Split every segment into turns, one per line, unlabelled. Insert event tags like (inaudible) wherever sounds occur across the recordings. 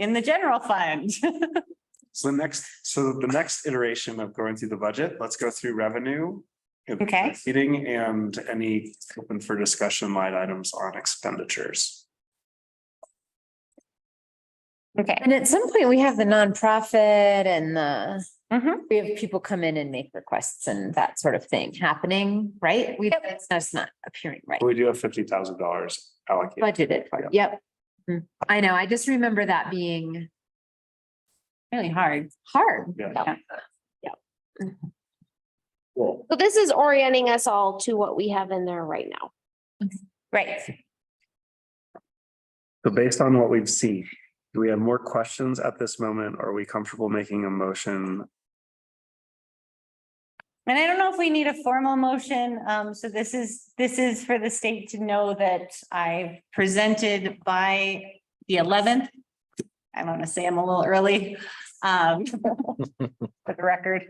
in the general fund. (laughs)
So the next, so the next iteration of going through the budget, let's go through revenue.
Okay.
Eating and any open for discussion line items on expenditures.
Okay.
And at some point, we have the nonprofit and the,
Mm-hmm.
Mhm.
we have people come in and make requests and that sort of thing happening, right? We, it's not- it's not appearing right,
We do have fifty thousand dollars allocated.
budgeted for, it. yep. Mhm. I know, I just remember that being
Really hard.
hard.
Yeah.
So this is orienting us all to what we have in there right now.
Right.
So based on what we've seen, do we have more questions at this moment? Are we comfortable making a motion?
And I don't know if we need a formal motion. Um, so this is, this is for the state to know that I presented by the eleventh. I want to say I'm a little early, um, for the record.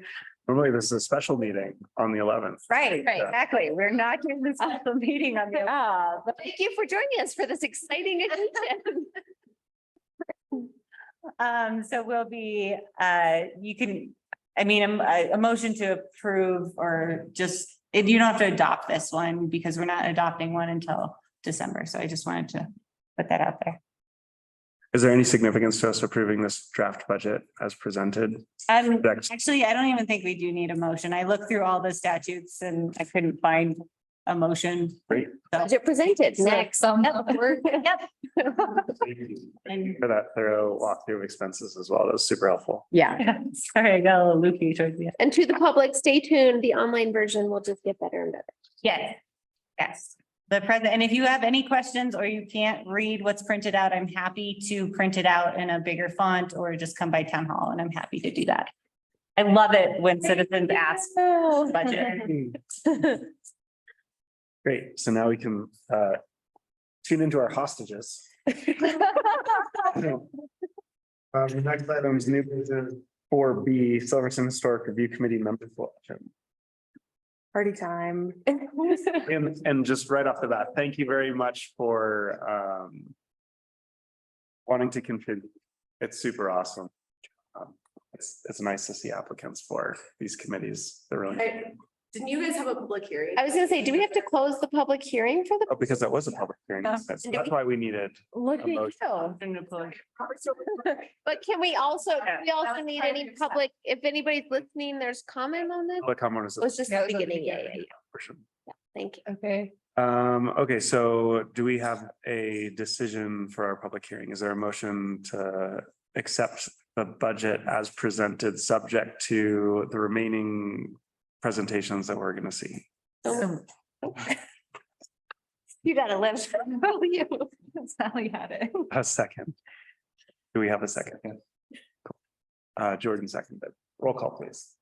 Normally, this is a special meeting on the eleventh.
Right,
Right.
exactly. We're not doing this special meeting on (laughs) the.
Yeah, but
Thank you for joining us for
(laughs)
this exciting agenda.
Um, so we'll be, uh, you can, I mean, um, a, a motion to approve or just, eh, you don't have to adopt this one because we're not adopting one until December. So I just wanted to put that out there.
Is there any significance to us approving this draft budget as presented?
Um,
Next.
actually, I don't even think we do need a motion. I looked through all the statutes and I couldn't find a motion. (laughs)
Great.
Budget presented
(laughs)
next. (laughs)
And
For that thorough walkthrough of expenses as well. That was super helpful.
(laughs)
yeah.
sorry, I got a little loopy towards the end.
And to the public, stay tuned. The online version will just get better and better.
Yes, yes. The president, and if you have any questions or you can't read what's printed out, I'm happy to print it out in a bigger font or just come by town hall and I'm happy to do that. I love it when citizens ask
(laughs)
for
(laughs)
budget.
Great. So now we can uh tune into our hostages. (laughs) Um, the next item is new business four B Silverton Historic Review Committee member selection.
Party time.
(laughs) And, and just right off the bat, thank you very much for, um, wanting to contribute. It's super awesome. Um, It's, it's nice to see applicants for these committees. They're really,
Right. Didn't you guys have a public hearing?
I was gonna say, do we have to close the public hearing
(laughs)
for the?
oh, because that was a public hearing. That's, that's why we needed.
Look at you.
But can we also,
Yeah.
we
That
also
was
need
part of
any
your stuff.
public, if anybody's listening, there's comment on this?
Public comment was
It was just the
Yeah,
beginning. Yeah, yeah, yeah.
portion.
Thank you.
Okay.
Um, okay, so do we have a decision for our public hearing? Is there a motion to accept the budget as presented, subject to the remaining presentations that we're gonna see?
(laughs) You gotta live.
Sally had it.
A second. Do we have a second? Cool. Uh, Jordan seconded. Roll call, please.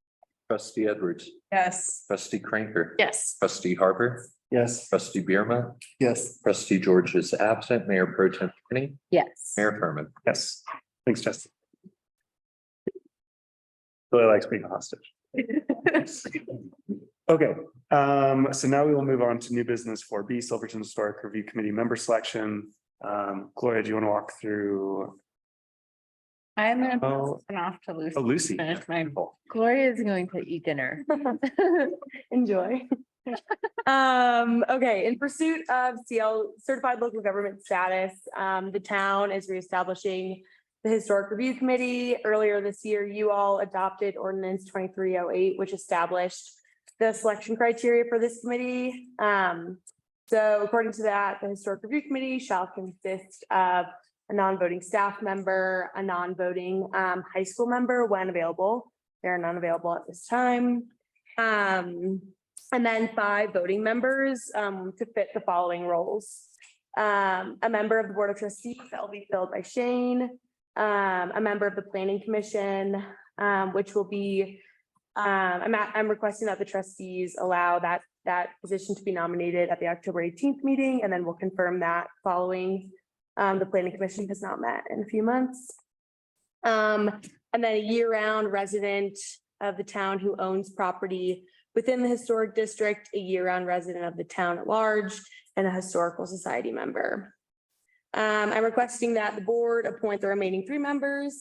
Trustee Edwards,
Yes.
trustee Cranker,
Yes.
trustee Harper,
Yes.
trustee Birma,
Yes.
trustee George is absent, mayor pro tem Kenny,
Yes.
mayor Herman.
Yes. Thanks, Justin. Really likes being a hostage. Okay, um, so now we will move on to new business for B Silverton Historic Review Committee member selection. Um, Gloria, do you want to walk through?
I'm gonna
Oh,
turn off to lose.
oh, Lucy.
Finish my-
Gloria is going to eat dinner.
Enjoy. Um, okay, in pursuit of CL certified local government status, um, the town is reestablishing the Historic Review Committee. Earlier this year, you all adopted ordinance twenty-three oh eight, which established the selection criteria for this committee. Um, so according to that, the Historic Review Committee shall consist of a non-voting staff member, a non-voting, um, high school member when available. They're not available at this time. Um, and then five voting members, um, to fit the following roles. Um, a member of the Board of Trustees that will be filled by Shane, um, a member of the Planning Commission, um, which will be, um, I'm, at- I'm requesting that the trustees allow that, that position to be nominated at the October eighteenth meeting, and then we'll confirm that following, um, the Planning Commission has not met in a few months. Um, and then a year-round resident, of the town who owns property within the historic district, a year-round resident of the town at large, and a historical society member. Um, I'm requesting that the board appoint the remaining three members